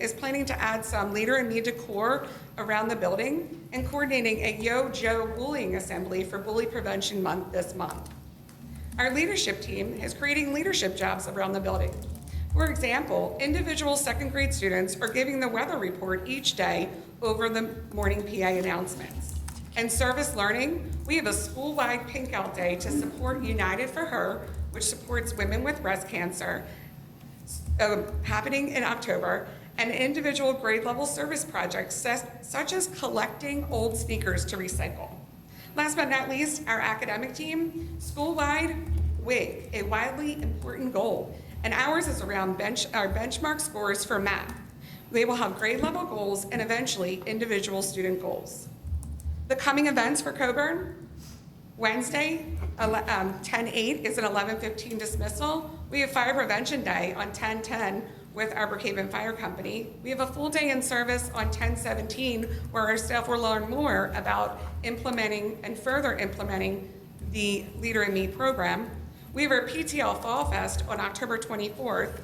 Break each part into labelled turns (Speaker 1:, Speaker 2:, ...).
Speaker 1: is planning to add some leader and me decor around the building and coordinating a Yo Joe bullying assembly for Bully Prevention Month this month. Our leadership team is creating leadership jobs around the building. For example, individual second grade students are giving the weather report each day over the morning PA announcements. And service learning, we have a school-wide pink out day to support United for Her, which supports women with breast cancer, uh, happening in October, and individual grade level service projects ses- such as collecting old sneakers to recycle. Last but not least, our academic team, school-wide WIG, a widely important goal, and ours is around bench, our benchmark scores for math. They will have grade level goals and eventually individual student goals. The coming events for Coburn, Wednesday, ele- um, 10/8 is an 11:15 dismissal. We have Fire Prevention Day on 10/10 with Arbor Cave and Fire Company. We have a full day in service on 10/17 where our staff will learn more about implementing and further implementing the Leader in Me program. We have our PTL Fall Fest on October 24th.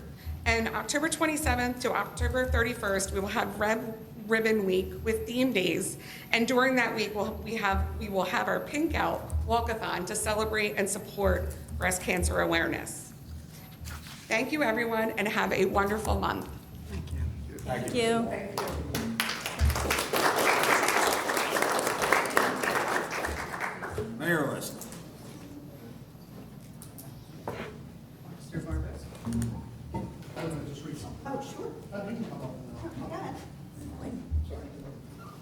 Speaker 1: And October 27th to October 31st, we will have Red Ribbon Week with theme days. And during that week, we'll, we have, we will have our Pink Out Walkathon to celebrate and support breast cancer awareness. Thank you, everyone, and have a wonderful month.
Speaker 2: Thank you.
Speaker 3: Mayor list.
Speaker 4: Mr. Vargas? I'm gonna just read something. Oh, sure. I think you come up with that. Sorry.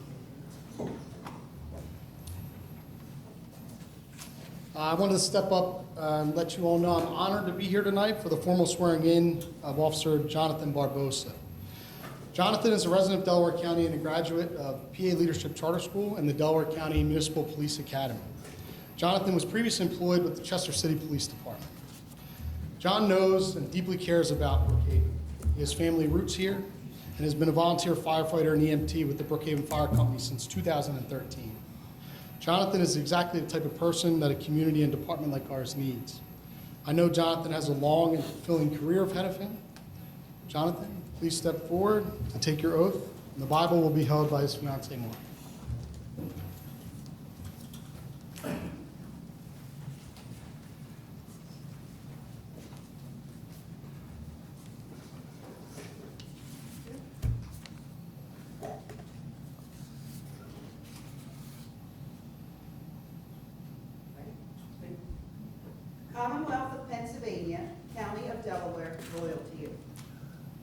Speaker 4: Uh, I wanted to step up uh, and let you all know I'm honored to be here tonight for the formal swearing-in of Officer Jonathan Barbosa. Jonathan is a resident of Delaware County and a graduate of PA Leadership Charter School and the Delaware County Municipal Police Academy. Jonathan was previously employed with the Chester City Police Department. John knows and deeply cares about Brookhaven. His family roots here and has been a volunteer firefighter and EMT with the Brookhaven Fire Company since 2013. Jonathan is exactly the type of person that a community and department like ours needs. I know Jonathan has a long and fulfilling career ahead of him. Jonathan, please step forward and take your oath, and the Bible will be held by his fiancee, Mark.
Speaker 5: Commonwealth of Pennsylvania, County of Delaware, loyal to you.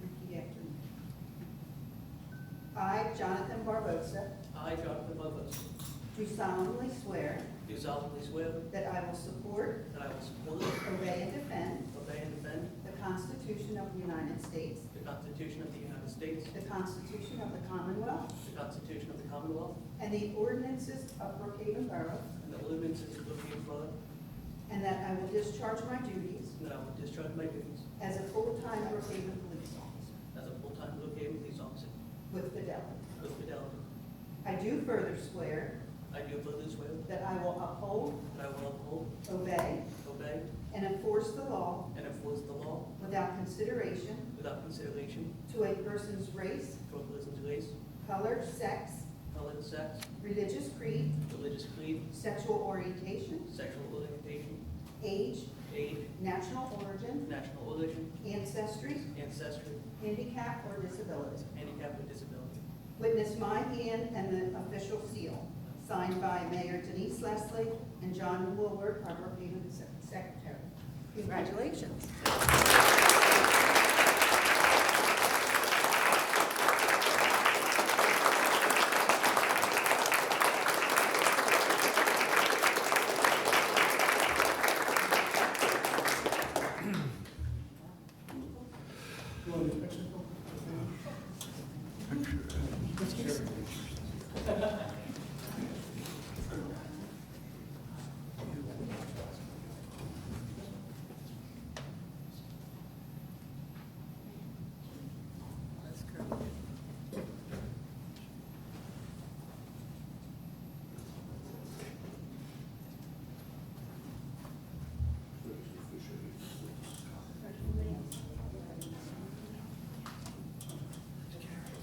Speaker 5: Repeat after me. I, Jonathan Barbosa,
Speaker 6: I, Jonathan Lovelace,
Speaker 5: do solemnly swear
Speaker 6: do solemnly swear
Speaker 5: that I will support,
Speaker 6: that I will support,
Speaker 5: obey, and defend
Speaker 6: obey, and defend
Speaker 5: the Constitution of the United States,
Speaker 6: the Constitution of the United States,
Speaker 5: the Constitution of the Commonwealth,
Speaker 6: the Constitution of the Commonwealth,
Speaker 5: and the ordinances of Brookhaven Borough,
Speaker 6: and the ordinances of the Brookhaven Borough,
Speaker 5: and that I will discharge my duties
Speaker 6: and that I will discharge my duties
Speaker 5: as a full-time Brookhaven police officer
Speaker 6: as a full-time Brookhaven police officer
Speaker 5: with fidelity.
Speaker 6: with fidelity.
Speaker 5: I do further swear
Speaker 6: I do further swear
Speaker 5: that I will uphold,
Speaker 6: that I will uphold,
Speaker 5: obey,
Speaker 6: obey,
Speaker 5: and enforce the law
Speaker 6: and enforce the law
Speaker 5: without consideration
Speaker 6: without consideration
Speaker 5: to a person's race,
Speaker 6: to a person's race,
Speaker 5: color, sex,
Speaker 6: color, sex,
Speaker 5: religious creed,
Speaker 6: religious creed,
Speaker 5: sexual orientation,
Speaker 6: sexual orientation,
Speaker 5: age,
Speaker 6: age,
Speaker 5: national origin,
Speaker 6: national origin,
Speaker 5: ancestry,
Speaker 6: ancestry,
Speaker 5: handicap, or disability.
Speaker 6: handicap, or disability.
Speaker 5: Witness my hand and the official seal, signed by Mayor Denise Leslie and John Woolward, our Brookhaven Sec- Secretary. Congratulations.